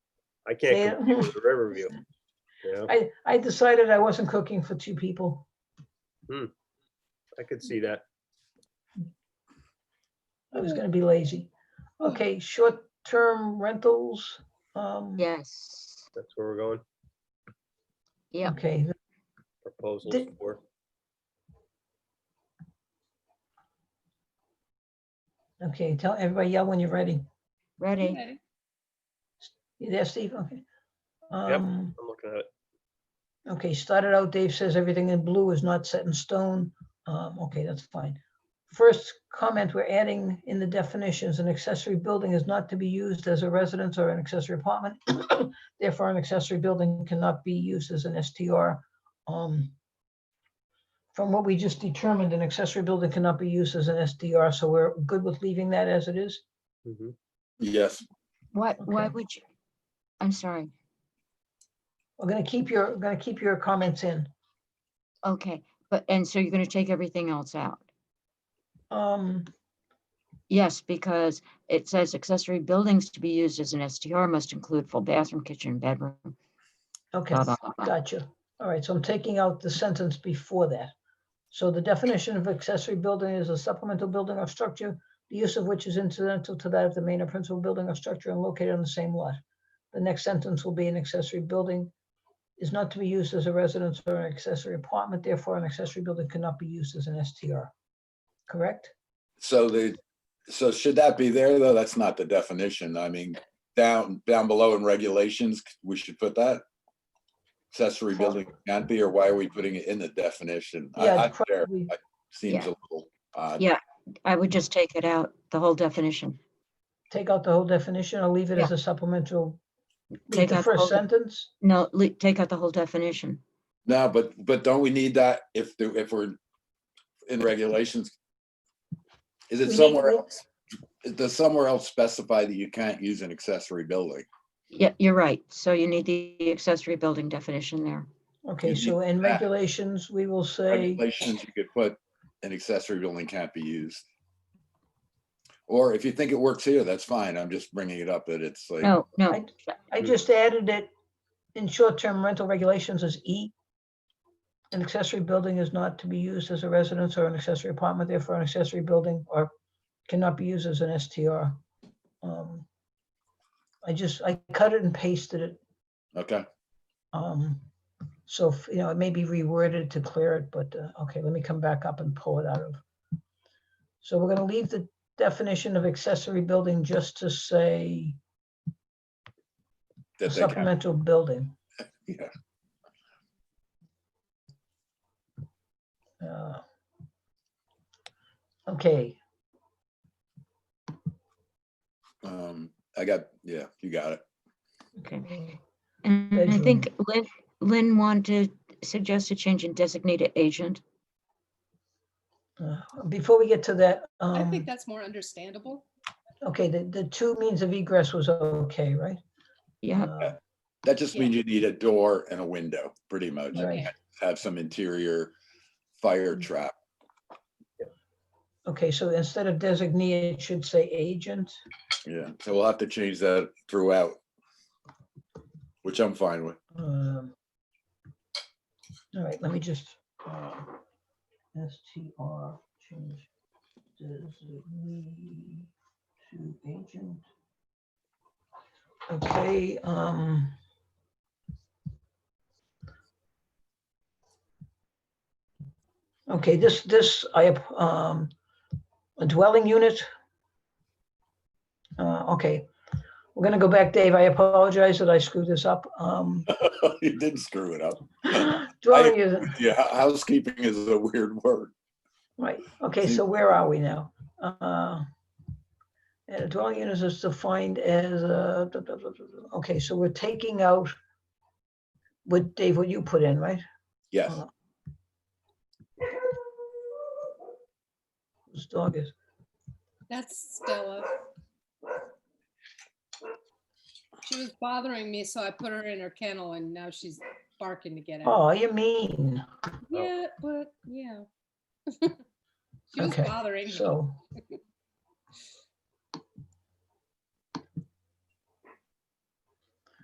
I can't compete with the Riverview. You know, I, I decided I wasn't cooking for two people. I could see that. I was gonna be lazy. Okay, short-term rentals. um, Yes, That's where we're going. yep. Okay, Proposals Did- for, okay, tell everybody, yell when you're ready. Ready? Ready. You there, Steve? Okay. Um, I'm looking at it. Okay, started out, Dave says everything in blue is not set in stone. Um, Okay, that's fine. First comment, we're adding in the definitions, an accessory building is not to be used as a residence or an accessory apartment. Therefore, an accessory building cannot be used as an STR. Um, From what we just determined, an accessory building cannot be used as an SDR, so we're good with leaving that as it is. Mhm. Yes, Why, why Okay. would you? I'm sorry. We're gonna keep your, gonna keep your comments in. Okay, but, and so you're gonna take everything else out? Um, Yes, because it says accessory buildings to be used as an STR must include full bathroom, kitchen, bedroom. Okay. blah, blah, blah, blah. Gotcha. All right, so I'm taking out the sentence before that. So the definition of accessory building is a supplemental building or structure, the use of which is incidental to that of the main or principal building or structure and located on the same lot. The next sentence will be an accessory building is not to be used as a residence or an accessory apartment, therefore an accessory building cannot be used as an STR. Correct? so the, so should that be there, though? That's not the definition. I mean, down, down below in regulations, we should put that. Accessory building can't be, or why are we putting it in the definition? I- Yeah, I- it's there probably- Seems a Yeah. little odd. Yeah. I would just take it out, the whole definition. Take out the whole definition or leave it Yeah. as a supplemental. Leave Take the out the first whole- sentence. No, le- take out the whole definition. No, but, but don't we need that if, the if we're in regulations? Is We it need- somewhere else? Does somewhere else specify that you can't use an accessory building? Yeah, you're right. So you need the accessory building definition there. Okay, You- so in that. regulations, we will say. regulations you could put an accessory building can't be used. Or if you think it works here, that's fine. I'm just bringing it up that it's Oh. like, No, no, I Mm. just added it in short-term rental regulations as E. An accessory building is not to be used as a residence or an accessory apartment, therefore an accessory building or cannot be used as an STR. Um, I just, I cut it and pasted it. okay, um, So, f- you know, it may be reworded to clear it, but, uh, okay, let me come back up and pull it out of. So we're gonna leave the definition of accessory building just to say that they can, supplemental building. yeah, Uh, Okay, um, I got, yeah, you got it. okay. Mm-hmm. And I think Lynn, Lynn wanted, suggested change in designated agent. uh, before we get to that, I think um, that's more understandable. okay, the, the two means of egress was okay, right? Yeah, Mm-hmm. Uh, That just Yeah. means you need a door and a window, pretty much. Right. Yeah. Have some interior fire Mm. trap. Okay, so instead of designee, it should say agent. Yeah, so we'll have to change that throughout. Which I'm fine with. um, All right, let me just. uh, STR change designee to agent. Okay, um. Okay, this, this, I, ap- um, a dwelling unit. Uh, okay, we're gonna go back, Dave. I apologize that I screwed this up. Um, You didn't screw it up. dwelling unit. Yeah, housekeeping is a weird word. Right, okay, Mm. so where are we now? Uh, And a dwelling unit is defined as, uh, duh, duh, duh, duh, duh. okay, so we're taking out what, Dave, what you put in, right? Yes. Uh, This dog is, That's Stella. She was bothering me, so I put her in her kennel and now she's barking to get out. oh, you mean, Yeah, but yeah. She was Okay, bothering me. so,